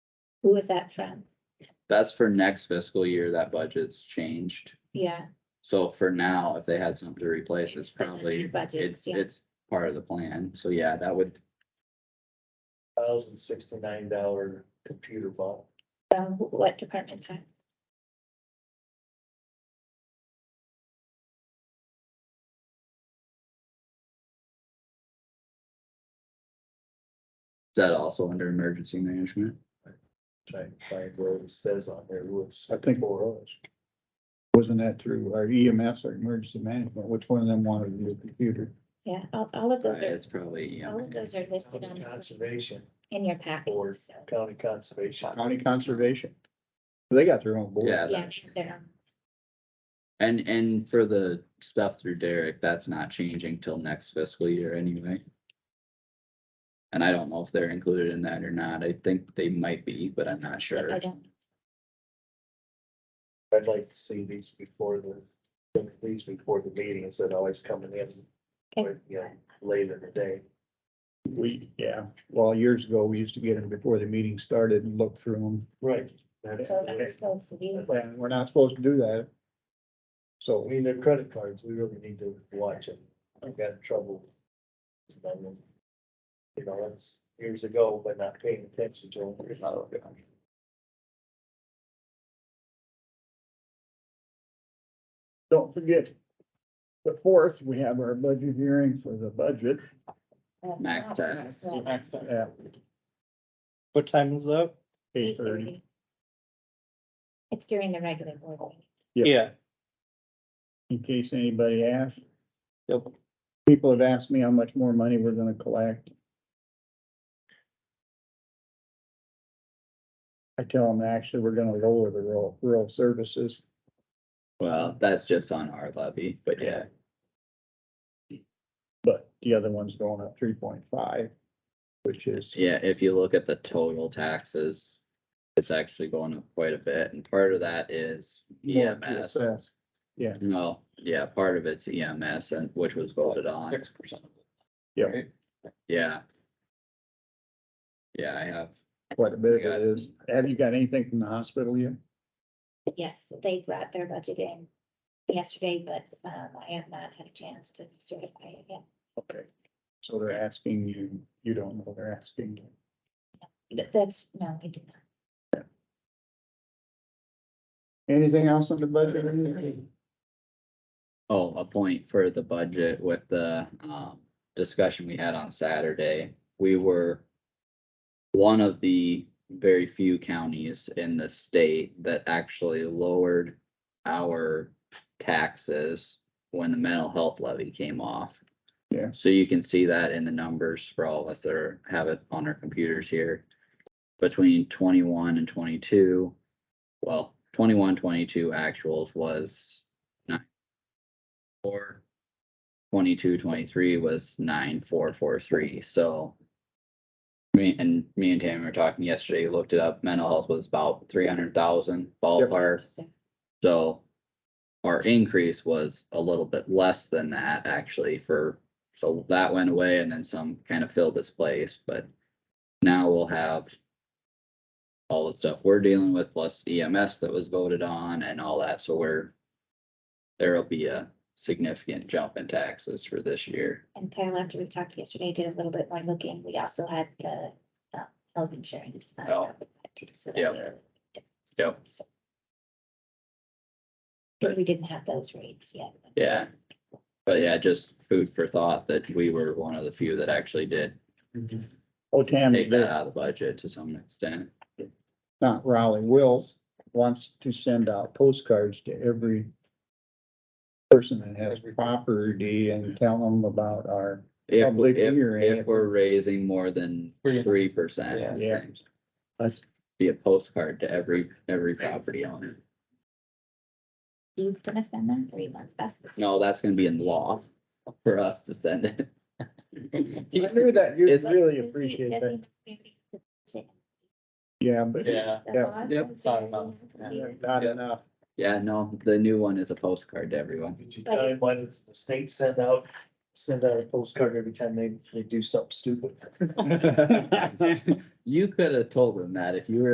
Who is that from? That's for next fiscal year, that budget's changed. Yeah, So for now, if they had something to replace, it's It's in the new probably, budget, it's, yeah. it's part of the plan. So yeah, that would, thousand sixty-nine dollar computer bought. from wh- what department? time? is that also under emergency management? Trying to find where it says on there, who it's I think- for. us. Wasn't that through our EMS or emergency management? Which one of them wanted a new computer? Yeah, all, all of those It's are, probably, yeah. all of those are listed on, County the- Conservation, in your packet, Board. so, county conservation. County Conservation. They got their own board. Yeah, yeah, that's- they're on. and, and for the stuff through Derek, that's not changing till next fiscal year anyway. And I don't know if they're included in that or not. I think they might be, but I'm not sure. I don't, I'd like to see these before the, these before the meeting, instead of always coming in, okay, you know, late in the day. We, yeah, well, years ago, we used to get them before the meeting started and look through them. Right. That's, so that's I supposed to be, And we're not supposed to do that. So mean, their credit cards, we really need to watch it. I got in trouble. with them, You know, that's years ago, but not paying attention to them. don't forget, the fourth, we have our budget hearing for the budget. uh, Mac not time. us, but at What time is that? eight thirty. It's during the regular board meeting. Yep. Yeah, in case anybody asks. Yep. People have asked me how much more money we're gonna collect. I tell them, actually, we're gonna lower the rural, rural services. Well, that's just on our levy, but yeah, But the other one's going up three point five, which is, yeah, if you look at the total taxes, it's actually going up quite a bit, and part of that is E more to EMS. assess. No, yeah, part of it's EMS and which was voted on, six percent. Yeah. yeah. Yeah, I have, quite a bit of it is. Have you got anything from the hospital yet? Yes, they brought their budget in yesterday, but, um, I have not had a chance to certify it yet. Okay, so they're asking you, you don't know, they're asking. you. That, that's, no, I do not. Anything else on the budget? or anything? oh, a point for the budget with the um discussion we had on Saturday, we were. One of the very few counties in the state that actually lowered our taxes when the mental health levy came off. Yeah. So you can see that in the numbers for all of us that are, have it on our computers here. Between twenty-one and twenty-two, well, 21, 22 actuals was nine. Or 22, 23 was nine, four, four, three, so. Me and me and Tammy were talking yesterday, looked it up, mental health was about three hundred thousand ballpark. Yep. So our increase was a little bit less than that actually for, so that went away and then some kind of filled its place, but now we'll have all the stuff we're dealing with plus EMS that was voted on and all that, so we're there'll be a significant jump in taxes for this year. And Kyle, after we talked yesterday, did a little bit more looking. We also had the uh, health insurance. uh, Oh. with that too, so Yep. that really difference. Yep. So- 'Cause we didn't have those rates yet. Yeah. But yeah, just food for thought that we were one of the few that actually did Oh, Tammy, take that they're- out of the budget to some extent. not Raleigh Wills, wants to send out postcards to every person that has property and tell them about our, If, Public if, hearing. if we're raising more than Three. three percent. Yeah. Yeah. That's- Be a postcard to every, every property owner. You gonna send them three months best? No, that's gonna be in law for us to send it. I knew that, you It's- really appreciate that. Yeah, but Yeah. Yeah. Yep. not enough. Yeah, no, the new one is a postcard to everyone. Did you But tell it- him why does the state send out, send out a postcard every time they, they do something stupid? You could have told them that if you were